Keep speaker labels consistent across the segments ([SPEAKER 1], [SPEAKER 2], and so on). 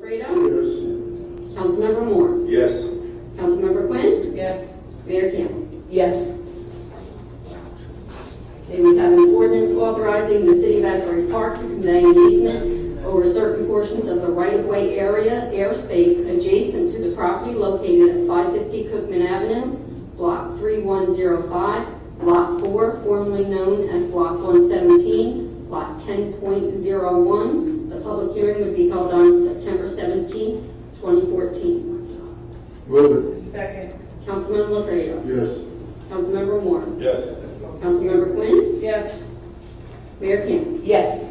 [SPEAKER 1] Fredo.
[SPEAKER 2] Yes.
[SPEAKER 1] Councilmember Moore.
[SPEAKER 2] Yes.
[SPEAKER 1] Councilmember Quinn.
[SPEAKER 3] Yes.
[SPEAKER 1] Mayor Campbell.
[SPEAKER 3] Yes.
[SPEAKER 1] Okay, we have an ordinance authorizing the city of Asbury Park to convey an easement over certain portions of the right-of-way area, airspace adjacent to the property located at 550 Cookman Avenue, Block 3105, Lot 4, formerly known as Block 117, Lot 10.01. The public hearing would be held on September 17, 2014.
[SPEAKER 2] Move
[SPEAKER 3] Second.
[SPEAKER 1] Councilmember
[SPEAKER 2] it.
[SPEAKER 1] Fredo.
[SPEAKER 2] Yes.
[SPEAKER 1] Councilmember Moore.
[SPEAKER 2] Yes.
[SPEAKER 1] Councilmember Quinn.
[SPEAKER 3] Yes.
[SPEAKER 1] Mayor Campbell.
[SPEAKER 3] Yes.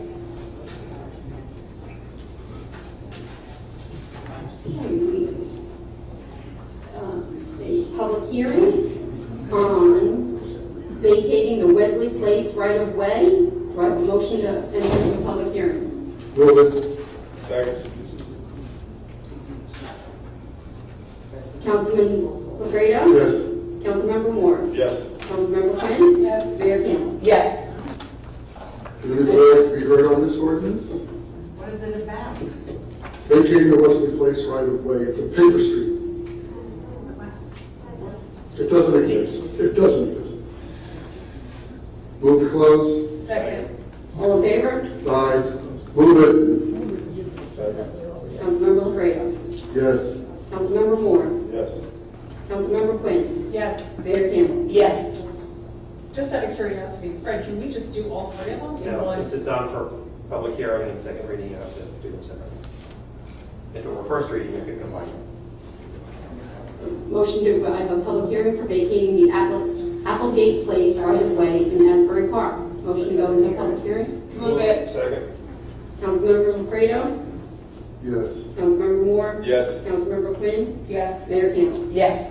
[SPEAKER 1] Um, Uh, a public hearing on vacating the Wesley Place right-of-way. Do I have a motion to enter the public hearing?
[SPEAKER 2] Move it. Second.
[SPEAKER 1] Councilman Lefredo?
[SPEAKER 2] Yes.
[SPEAKER 1] Councilmember Moore?
[SPEAKER 2] Yes.
[SPEAKER 1] Councilmember Quinn?
[SPEAKER 3] Yes.
[SPEAKER 1] Mayor Campbell?
[SPEAKER 3] Yes.
[SPEAKER 2] Would anybody like to be heard on this ordinance?
[SPEAKER 3] What is it about?
[SPEAKER 2] Vacating the Wesley Place right of way. It's a paper street. It doesn't exist. It doesn't exist. Move to close.
[SPEAKER 3] Second.
[SPEAKER 1] All in favor?
[SPEAKER 2] Aye. Move
[SPEAKER 1] Councilmember Lefredo?
[SPEAKER 2] it. Yes.
[SPEAKER 1] Councilmember Moore?
[SPEAKER 2] Yes.
[SPEAKER 1] Councilmember Quinn?
[SPEAKER 3] Yes.
[SPEAKER 1] Mayor Campbell?
[SPEAKER 3] Yes.
[SPEAKER 4] Just out of curiosity, Fred, can we just do all three of them? in
[SPEAKER 5] No,
[SPEAKER 4] one?
[SPEAKER 5] since it's on for public hearing and second reading, you have to do them separately. If it were first reading, you could combine them.
[SPEAKER 1] Motion to, I have a public hearing for vacating the Apple- Applegate Place right-of-way in Asbury Park. Motion to go into public hearing?
[SPEAKER 3] Move it.
[SPEAKER 2] Second.
[SPEAKER 1] Councilmember Lefredo?
[SPEAKER 2] Yes.
[SPEAKER 1] Councilmember Moore?
[SPEAKER 2] Yes.
[SPEAKER 1] Councilmember Quinn?
[SPEAKER 3] Yes.
[SPEAKER 1] Mayor Campbell?
[SPEAKER 3] Yes.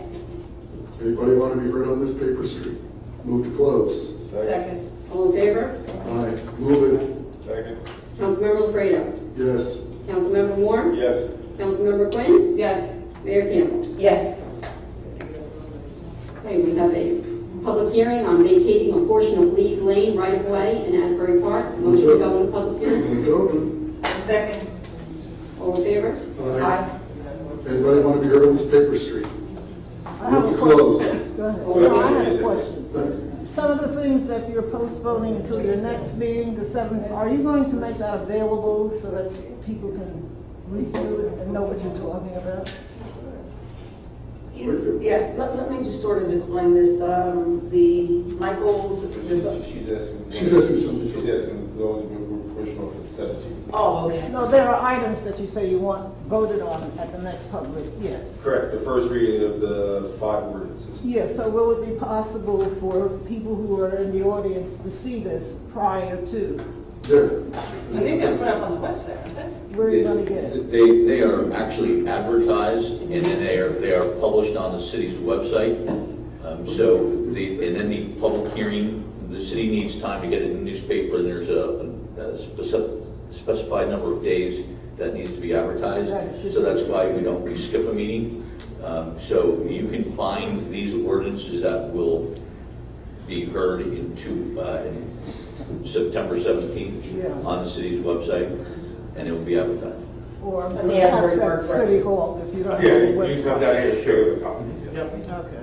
[SPEAKER 2] Anybody want to be heard on this paper street? Move to close.
[SPEAKER 3] Second.
[SPEAKER 1] All in favor?
[SPEAKER 2] Aye. Move it. Second.
[SPEAKER 1] Councilmember Lefredo?
[SPEAKER 2] Yes.
[SPEAKER 1] Councilmember Moore?
[SPEAKER 2] Yes.
[SPEAKER 1] Councilmember Quinn?
[SPEAKER 3] Yes.
[SPEAKER 1] Mayor Campbell?
[SPEAKER 3] Yes.
[SPEAKER 1] Okay, we have a public hearing on vacating a portion of Lee's Lane right-of-way in Asbury Park. Motion to go into public hearing?
[SPEAKER 2] Move it open.
[SPEAKER 3] Second.
[SPEAKER 1] All in favor?
[SPEAKER 3] Aye.
[SPEAKER 2] Anybody want to be heard on this paper street? Move to close.
[SPEAKER 6] Go ahead.
[SPEAKER 1] All in favor?
[SPEAKER 6] I have a question. Some of the things that you're postponing until your next meeting, the seventh, are you going to make that available so that people can review it and know what you're talking about?
[SPEAKER 7] Yes, let, let me just sort of explain this. Um, the Michael's, the-
[SPEAKER 8] She's asking.
[SPEAKER 2] She's asking something.
[SPEAKER 8] She's asking those who were professional for seventeen.
[SPEAKER 7] oh, okay.
[SPEAKER 6] No, there are items that you say you want voted on at the next public, yes.
[SPEAKER 8] Correct, the first reading of the five ordinances.
[SPEAKER 6] Yeah, so will it be possible for people who are in the audience to see this prior to?
[SPEAKER 4] I think they're put up on the website, aren't they?
[SPEAKER 6] Where are you gonna get it?
[SPEAKER 9] They, they are actually advertised, and then they are, they are published on the city's website. Um, So, the, and then the public hearing, the city needs time to get it in the newspaper, and there's a a speci- specified number of days that needs to be advertised.
[SPEAKER 6] Right.
[SPEAKER 9] So that's why we don't, we skip a meeting. Um, So you can find these ordinances that will be heard in two, uh, in September 17th
[SPEAKER 6] Yeah.
[SPEAKER 9] on the city's website, and it will be advertised.
[SPEAKER 6] Or
[SPEAKER 3] And the Asbury
[SPEAKER 6] perhaps
[SPEAKER 3] Park
[SPEAKER 6] at
[SPEAKER 3] Press.
[SPEAKER 6] City Hall if you don't have a
[SPEAKER 8] Yeah,
[SPEAKER 6] website?
[SPEAKER 8] you come down here and show the company.
[SPEAKER 5] Yep.
[SPEAKER 6] Okay.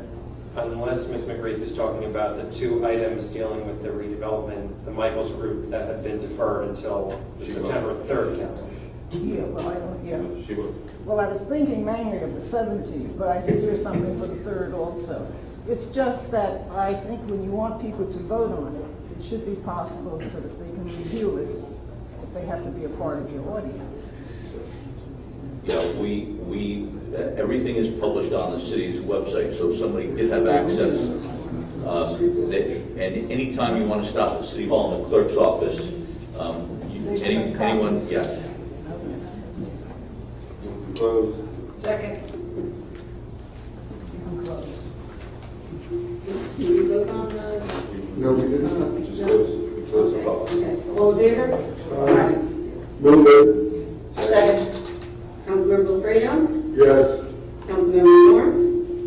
[SPEAKER 5] Unless Ms. McReith is talking about the two items dealing with the redevelopment, the Michaels group that have been deferred until the
[SPEAKER 8] She will.
[SPEAKER 5] September 3rd council.
[SPEAKER 6] Yeah, well, I don't, yeah.
[SPEAKER 8] She will.
[SPEAKER 6] Well, I was thinking mainly of the 17th, but I did hear something for the 3rd also. It's just that I think when you want people to vote on it, it should be possible so that they can review it, if they have to be a part of your audience.
[SPEAKER 9] Yeah, we, we, uh, everything is published on the city's website, so if somebody did have access, uh, they- and anytime you want to stop at City Hall in the clerk's office, um, you-
[SPEAKER 6] They
[SPEAKER 9] any-
[SPEAKER 6] can make
[SPEAKER 9] anyone,
[SPEAKER 6] copies.
[SPEAKER 9] yeah.
[SPEAKER 8] Close.
[SPEAKER 3] Second.
[SPEAKER 1] Can you vote on the?
[SPEAKER 2] No, we didn't.
[SPEAKER 8] Just close, close the file.
[SPEAKER 1] Okay. All in favor?
[SPEAKER 2] Move it.